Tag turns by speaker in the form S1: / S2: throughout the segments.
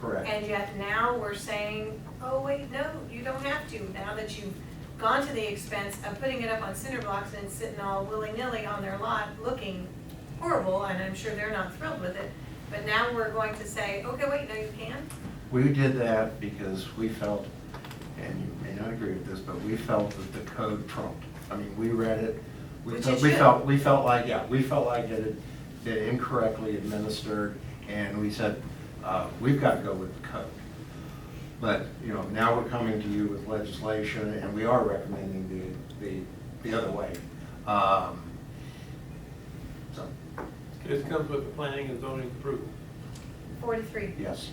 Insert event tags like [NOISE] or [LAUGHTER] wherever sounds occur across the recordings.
S1: Correct.
S2: And yet now we're saying, oh, wait, no, you don't have to, now that you've gone to the expense of putting it up on cinder blocks and sitting all willy-nilly on their lot looking horrible, and I'm sure they're not thrilled with it, but now we're going to say, okay, wait, no, you can?
S1: We did that because we felt, and you may not agree with this, but we felt that the code trumped. I mean, we read it, we
S2: Which
S1: felt,
S2: it
S1: we
S2: should.
S1: felt, we felt like, yeah, we felt like it had been incorrectly administered, and we said, uh, we've got to go with the code. But, you know, now we're coming to you with legislation, and we are recommending the, the, the other way. Um, So,
S3: This comes with the planning and zoning approval.
S2: Forty-three.
S1: yes,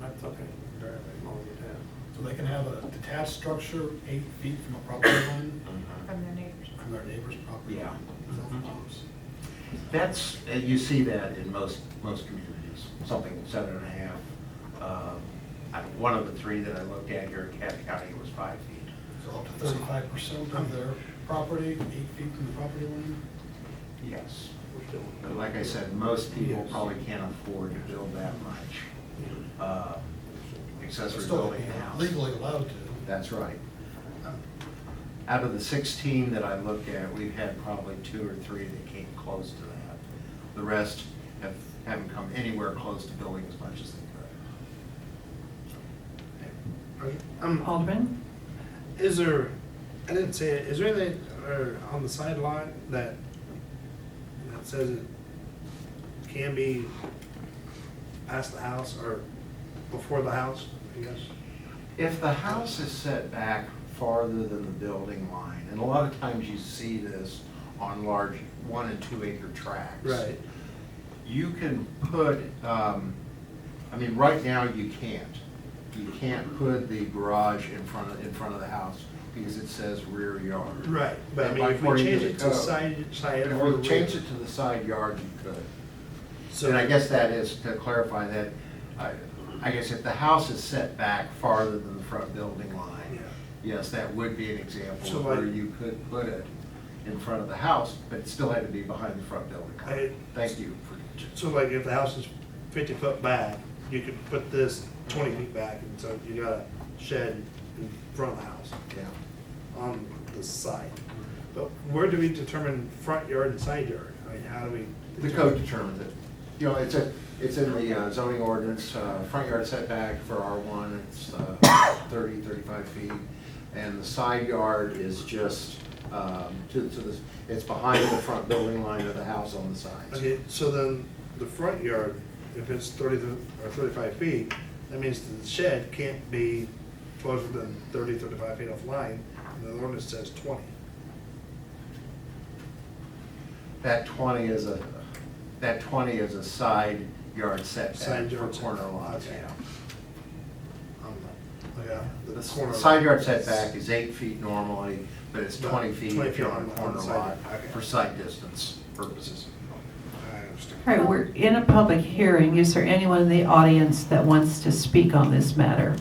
S3: That's okay. Very long as it has.
S4: So they can have a detached structure eight feet from a property line,
S2: From their neighbors.
S4: from their neighbor's property
S1: Yeah. Mm-hmm.
S4: line. Is that what it is?
S1: That's, uh, you see that in most, most communities, something seven and a half. Um, I- One of the three that I looked at here in Cat County was five feet.
S4: So up to thirty-five percent of their property, eight feet from the property line?
S1: Yes.
S3: We're still-
S1: But like I said, most people probably can't afford to build that much uh, accessory
S4: Still,
S1: building
S4: they're
S1: house.
S4: Legally allowed to. Um,
S1: That's right. Out of the 16 that I looked at, we've had probably two or three that came close to that. The rest have, haven't come anywhere close to building as much as they could.
S5: Um,
S6: Alderman?
S5: is there, I didn't see it, is there anything, or on the sideline that, that says it can be past the house or before the house, I guess?
S1: If the house is set back farther than the building line, and a lot of times you see this on large one and two acre tracts. you can put, um, I mean, right now you can't. You can't put the garage in front of, in front of the house because it says rear yard.
S5: Right, but I mean, if we
S1: According
S5: change
S1: the
S5: it
S1: code.
S5: to side, side
S1: If we
S5: or
S1: change
S5: rear.
S1: it to the side yard, you could.
S5: So
S1: And I guess that is, to clarify that, I, I guess if the house is set back farther than the front building line,
S5: Yeah.
S1: yes, that would be an example
S5: So
S1: of where
S5: like-
S1: you could put it in front of the house, but it still had to be behind the front building line.
S5: I-
S1: Thank you for
S5: So like if the house is fifty foot back, you could put this twenty feet back, and so you got a shed in front of the house.
S1: Yeah.
S5: on the side. But where do we determine front yard and side yard? I mean, how do we?
S1: The code determines it. You know, it's a, it's in the uh, zoning ordinance, uh, front yard setback for R one, it's uh, 30, 35 feet. And the side yard is just, um, to, to the, it's behind the front building line of the house on the side.
S5: Okay, so then the front yard, if it's thirty to- or thirty-five feet, that means the shed can't be closer than 30, 35 feet off line, and the ordinance says twenty.
S1: That twenty is a, that twenty is a side yard setback
S5: Side
S1: for
S5: yard
S1: corner
S5: setback,
S1: lots,
S5: okay.
S1: yeah.
S5: Um, Yeah.
S1: The s-
S5: corner-
S1: side yard setback is eight feet normally, but it's
S5: But
S1: twenty feet
S5: 20
S1: if you're
S5: feet
S1: on
S5: on
S1: a
S5: the
S1: corner
S5: side
S1: lot
S5: yard, okay.
S1: for side distance purposes.
S5: I understand.
S6: All right, we're in a public hearing. Is there anyone in the audience that wants to speak on this matter?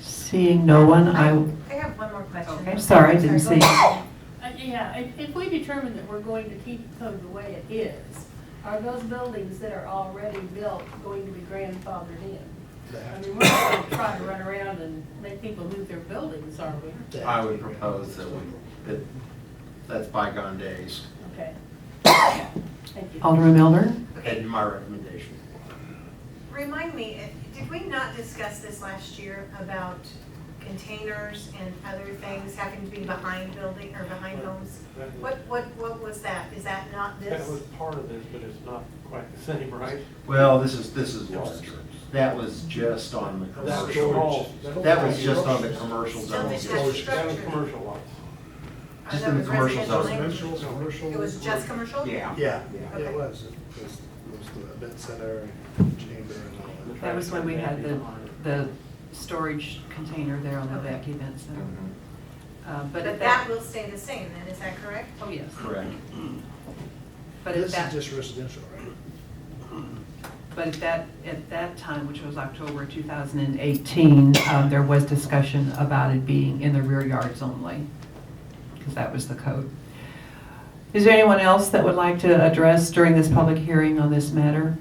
S6: Seeing no one, I,
S2: I have one more question.
S6: Okay, sorry, I didn't
S2: Sorry,
S6: see.
S2: go ahead.
S7: Uh, Yeah, if, if we determine that we're going to keep the code the way it is, are those buildings that are already built going to be grandfathered in? I mean, we're not gonna try to run around and make people move their buildings, are we?
S1: I would propose that we, that, that's bygone days,
S7: Okay. [COUGHS] Thank you.
S6: Alderman Milner?
S1: and my recommendation.
S2: Remind me, if- did we not discuss this last year about containers and other things having to be behind building or behind homes?
S3: That was-
S2: What, what, what was that? Is that not
S3: That
S2: this?
S3: was part of this, but it's not quite the same, right?
S1: Well, this is, this is larger. That was just on the
S3: That was
S1: commercial.
S3: all-
S1: That was just on the commercial
S2: Still
S1: zone.
S2: the
S1: district.
S3: That was
S2: structure.
S3: commercial lots.
S2: Oh,
S1: just
S2: that
S1: in the
S2: was
S1: commercial
S2: residential
S1: zone.
S2: language.
S4: Residential, commercial.
S2: It was just commercial?
S1: Yeah.
S5: Yeah,
S1: Yeah.
S5: it
S2: Okay.
S5: was. It was, it was the event center, and chamber and all that.
S6: That was when we had the, the storage container there on the back event center.
S1: Mhm,
S6: Uh, But
S2: But that
S6: at that,
S2: will stay the same then, is that correct?
S6: oh, yes,
S1: Correct.
S6: but at that.
S5: This is just residential, right?
S6: But at that, at that time, which was October 2018, um, there was discussion about it being in the rear yards only, because that was the code. Is there anyone else that would like to address during this public hearing on this matter?